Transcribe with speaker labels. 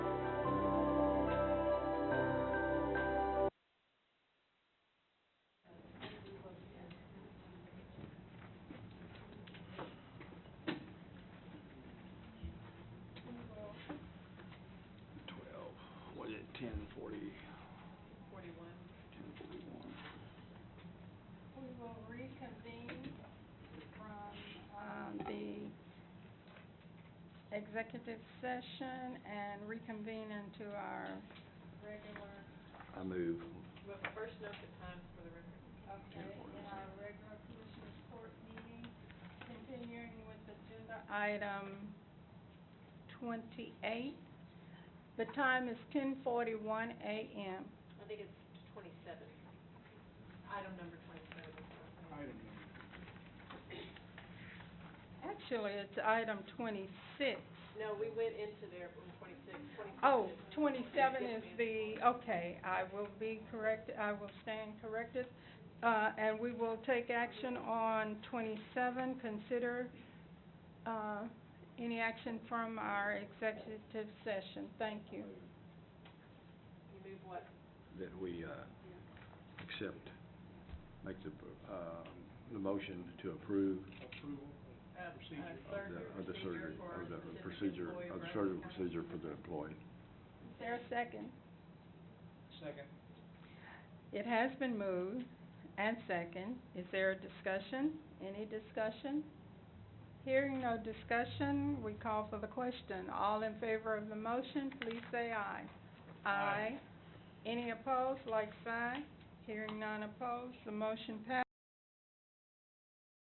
Speaker 1: ten forty,
Speaker 2: Forty-one.
Speaker 1: ten forty-one.
Speaker 2: We will reconvene from, um, the executive session and reconvene into our regular,
Speaker 1: I move.
Speaker 3: Well, first note the times for the record.
Speaker 2: okay, in our regular commissioners court meeting, continuing with agenda item twenty-eight. The time is ten forty-one AM.
Speaker 3: I think it's twenty-seven. Item number twenty-seven.
Speaker 1: Item
Speaker 2: Actually, it's item twenty-six.
Speaker 3: No, we went into there from twenty-six, twenty-seven.
Speaker 2: Oh,
Speaker 3: is-
Speaker 2: 27 is
Speaker 3: Yes, ma'am.
Speaker 2: the, okay, I will be correct, I will stand corrected. Uh, And we will take action on 27, consider uh, any action from our executive session. Thank you.
Speaker 3: You move what?
Speaker 1: That we, uh, accept, make the, uh, the motion to approve
Speaker 4: approval.
Speaker 3: Uh, uh,
Speaker 4: Procedure of
Speaker 1: of
Speaker 3: surgery
Speaker 1: the, of the surgery, of
Speaker 3: procedure for a
Speaker 1: the
Speaker 3: specific
Speaker 1: procedure,
Speaker 3: employee
Speaker 1: of the
Speaker 3: versus-
Speaker 1: surgical procedure for the employee.
Speaker 2: Is there a second?
Speaker 4: Second.
Speaker 2: It has been moved and second. Is there a discussion? Any discussion? Hearing no discussion, we call for the question. All in favor of the motion, please say aye. Aye. Any opposed, like sign. Hearing none opposed, the motion passes.